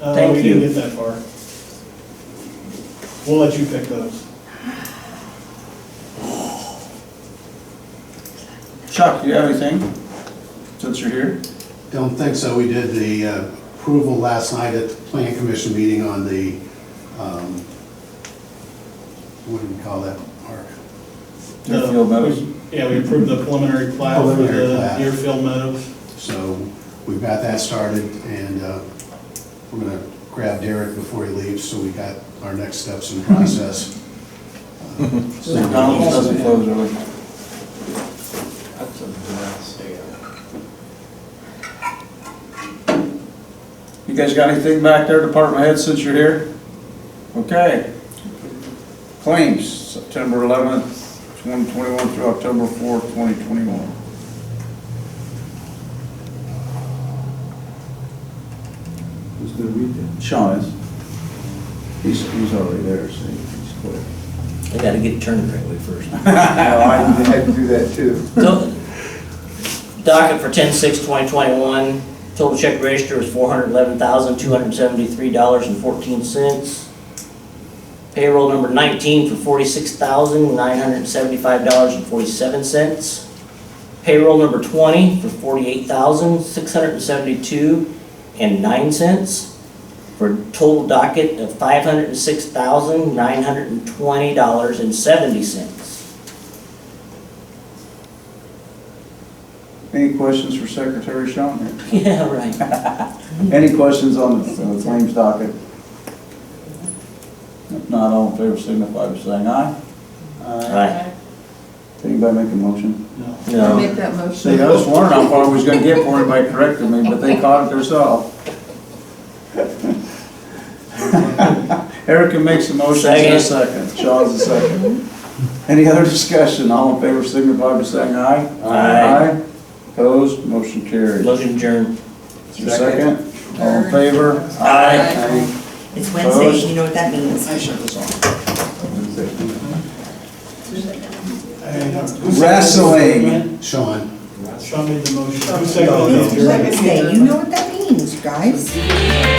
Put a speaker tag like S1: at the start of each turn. S1: Uh,
S2: Thank
S1: We didn't
S2: you.
S1: get that far. We'll let you pick those.
S2: Chuck, do you have anything, since you're here?
S3: Don't think so. We did the uh, approval last night at the plan commission meeting on the, um, what do we call that, Mark?
S2: Do you
S1: The-
S2: feel better?
S1: Yeah, we approved the preliminary plat for
S3: Preliminary
S1: the
S3: plat.
S1: Deerfield Meadows.
S3: So we've got that started and uh, we're gonna grab Derek before he leaves, so we got our next steps in process.
S2: McDonald's doesn't close early.
S4: That's a mess there.
S2: You guys got anything back there, department head, since you're here? Okay. Claims, September eleventh, twenty twenty-one through October fourth, twenty twenty-one.
S4: Who's gonna read that?
S2: Sean is. He's, he's already there, so he's quick.
S5: I gotta get turned the right way first.
S4: No, I had to do that too.
S5: So, Docket for ten six twenty twenty-one, total check register was four hundred eleven thousand, two hundred seventy-three dollars and fourteen cents. Payroll number nineteen for forty-six thousand, nine hundred seventy-five dollars and forty-seven cents. Payroll number twenty for forty-eight thousand, six hundred seventy-two and nine cents. For a total docket of five hundred six thousand, nine hundred twenty dollars and seventy cents.
S2: Any questions for Secretary Sean here?
S5: Yeah, right.
S2: Any questions on the on the claims docket? If not, all in favor signify by saying aye.
S5: Right.
S2: Anybody make a motion?
S1: No.
S6: um,
S5: No.
S7: Make that motion.
S2: See, I was wondering how far I was gonna get before anybody corrected me, but they caught it themselves. Erica makes a motion, in a second. Sean's a second. Any other discussion? All in favor signify by saying aye.
S5: Aye.
S2: Opposed, motion carries.
S5: Motion adjourned.
S2: Is there a second? All in favor?
S7: Aye.
S6: It's Wednesday,
S2: Opposed?
S6: you know what that means.
S2: I shut this off.
S1: Who seconded the
S2: Wrestling.
S1: motion?
S3: Sean?
S1: Sean made the motion. Who seconded
S6: It's
S1: it?
S6: Wednesday, you know what that means, guys.